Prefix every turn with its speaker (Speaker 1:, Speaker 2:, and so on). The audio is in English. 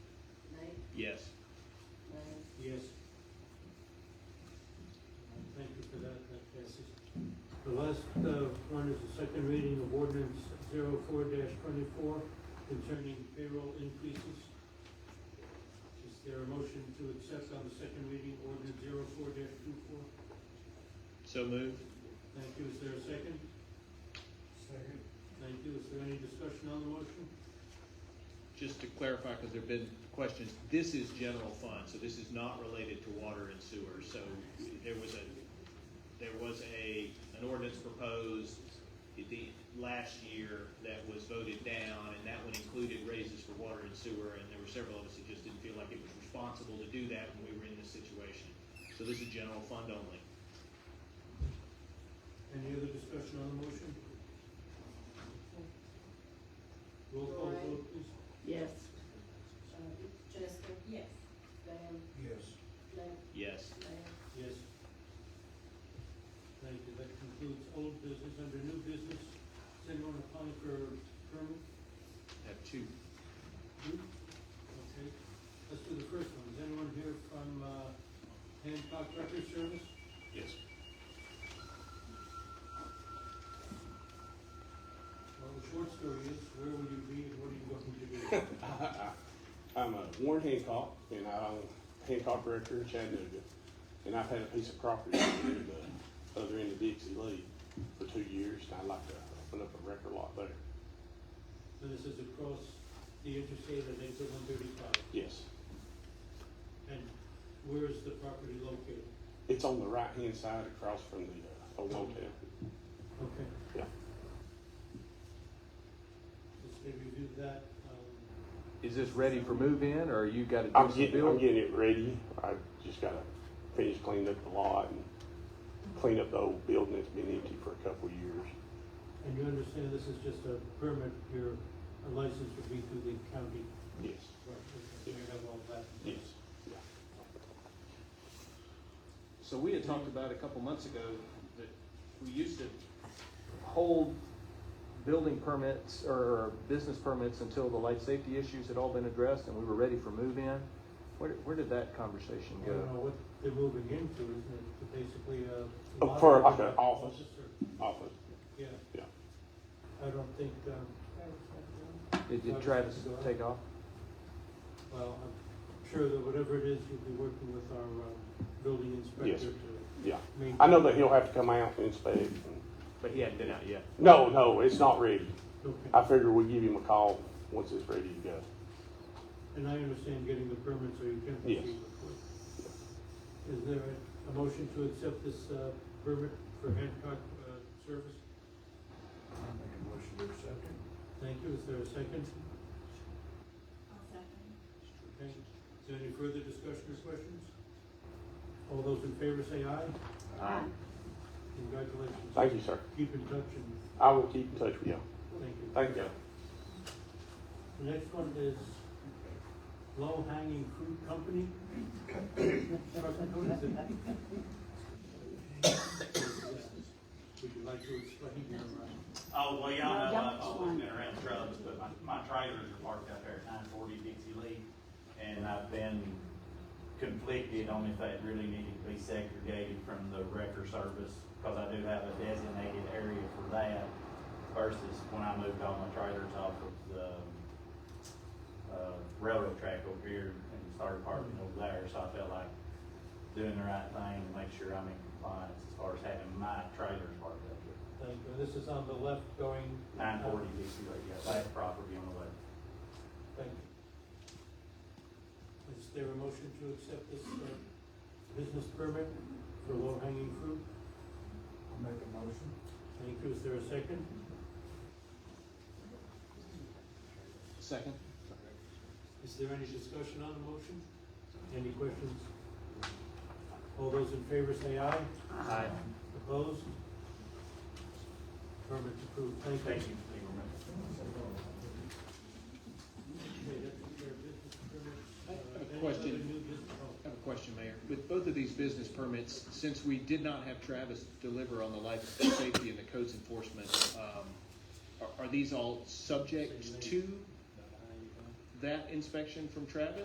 Speaker 1: Yes.
Speaker 2: Larry?
Speaker 3: Yes. Thank you for that, that passes. The last uh, one is the second reading of ordinance 4 twenty-four concerning payroll increases. Is there a motion to accept on the second reading ordinance 4 24?
Speaker 1: So moved?
Speaker 3: Thank you, is there a second?
Speaker 4: Second.
Speaker 3: Thank you, is there any discussion on the motion?
Speaker 1: Just to clarify, because there've been questions, this is general fund, so this is not related to water and sewer. So there was a, there was a, an ordinance proposed at the, last year that was voted down, and that one included raises for water and sewer, and there were several of us that just didn't feel like it was responsible to do that when we were in this situation. So this is general fund only.
Speaker 3: Any other discussion on the motion? Roll call
Speaker 2: Lorraine?
Speaker 3: vote, please.
Speaker 2: Yes. Uh, Jessica?
Speaker 5: Yes.
Speaker 2: Diane?
Speaker 4: Yes.
Speaker 2: Larry?
Speaker 1: Yes.
Speaker 2: Larry?
Speaker 3: Yes. Thank you, that concludes old business, under new business, is anyone applying for a permit?
Speaker 1: Have two.
Speaker 3: No? Okay, let's do the first one, is anyone here from, uh, Hancock Record Service?
Speaker 1: Yes.
Speaker 3: Well, the short story is, where will you be and what are you going to do?
Speaker 6: I'm a Warren Hancock, and I own Hancock Record in Chattanooga, and I've had a piece of property over near the other end of Dixie Lee for two years, and I'd like to open up a record lot there.
Speaker 3: So this is across the interstate at exit one thirty-five,
Speaker 6: Yes,
Speaker 3: and where is the property located?
Speaker 6: it's on the right-hand side across from the uh, old hotel.
Speaker 3: Okay.
Speaker 6: Yeah.
Speaker 3: Let's say review that, um,
Speaker 7: Is this ready for move-in, or you got to do
Speaker 6: I'm
Speaker 7: some
Speaker 6: getting, I'm
Speaker 7: building?
Speaker 6: getting it ready. I just gotta finish cleaning up the lot and clean up the old building that's been empty for a couple of years.
Speaker 3: and you understand this is just a permit, your license would be through the county.
Speaker 6: Yes,
Speaker 3: Right. You have all that.
Speaker 6: yes,
Speaker 7: So we had talked about a couple months ago that we used to hold building permits or business permits until the life safety issues had all been addressed and we were ready for move-in. Where, where did that conversation
Speaker 3: I don't
Speaker 7: go?
Speaker 3: know what they're moving into, isn't it, To basically uh, a.
Speaker 6: Oh, for like an office.
Speaker 3: or-
Speaker 6: office.
Speaker 3: Yeah.
Speaker 6: Yeah.
Speaker 3: I don't think, um,
Speaker 7: Did did Travis take off?
Speaker 3: well, I'm sure that whatever it is, you'll be working with our, um, building
Speaker 6: Yes.
Speaker 3: inspector to.
Speaker 6: Yeah.
Speaker 3: maintain-
Speaker 6: I know that he'll have to come out and inspect. and-
Speaker 1: But he hadn't been out yet.
Speaker 6: No, no, it's not ready.
Speaker 3: Okay.
Speaker 6: I figure we'll give him a call once it's ready to go.
Speaker 3: And I understand getting the permit so you can
Speaker 6: Yes.
Speaker 3: proceed with it. Is there a- a motion to accept this uh, permit for Hancock uh, Service?
Speaker 4: I'll make a motion to accept it.
Speaker 3: Thank you, is there a second?
Speaker 5: I'll second.
Speaker 3: Okay, is there any further discussion or questions? All those in favor say aye.
Speaker 2: Aye.
Speaker 3: Congratulations.
Speaker 6: Thank you, sir.
Speaker 3: Keep in touch and
Speaker 6: I will keep in touch with you.
Speaker 3: thank you.
Speaker 6: Thank you.
Speaker 3: The next one is Low Hanging Fruit Company. What is it? Would you like to explain your, uh,
Speaker 8: Oh, well, y'all know,
Speaker 2: Yeah,
Speaker 8: I've always
Speaker 2: fine.
Speaker 8: been around trucks, but my, my trailers are parked out there at nine forty Dixie Lee. And I've been conflicted on if they really needed to be segregated from the wrecker service, cause I do have a designated area for that versus when I moved all my trailers off of the, uh, railroad track over here and started parking over there, so I felt like doing the right thing and make sure I'm in compliance as far as having my trailers parked up here.
Speaker 3: thank you. this is on the left going.
Speaker 8: Nine forty Dixie Lake, yeah, that property on the left.
Speaker 3: Thank you. Is there a motion to accept this, uh, business permit for low hanging fruit?
Speaker 4: I'll make a motion.
Speaker 3: Thank you, is there a second?
Speaker 7: Second?
Speaker 3: Is there any discussion on the motion? Any questions? All those in favor say aye.
Speaker 1: Aye.
Speaker 3: Opposed? Permit approved, thank you.
Speaker 8: Thank you for being remembered.
Speaker 3: Okay, that's your business permit.
Speaker 1: I have
Speaker 3: Uh,
Speaker 1: a
Speaker 3: any other
Speaker 1: question.
Speaker 3: new business? Oh,
Speaker 1: I have a question, Mayor. With both of these business permits, since we did not have Travis deliver on the life safety and the codes enforcement, um, are, are these all subject to that inspection from Travis?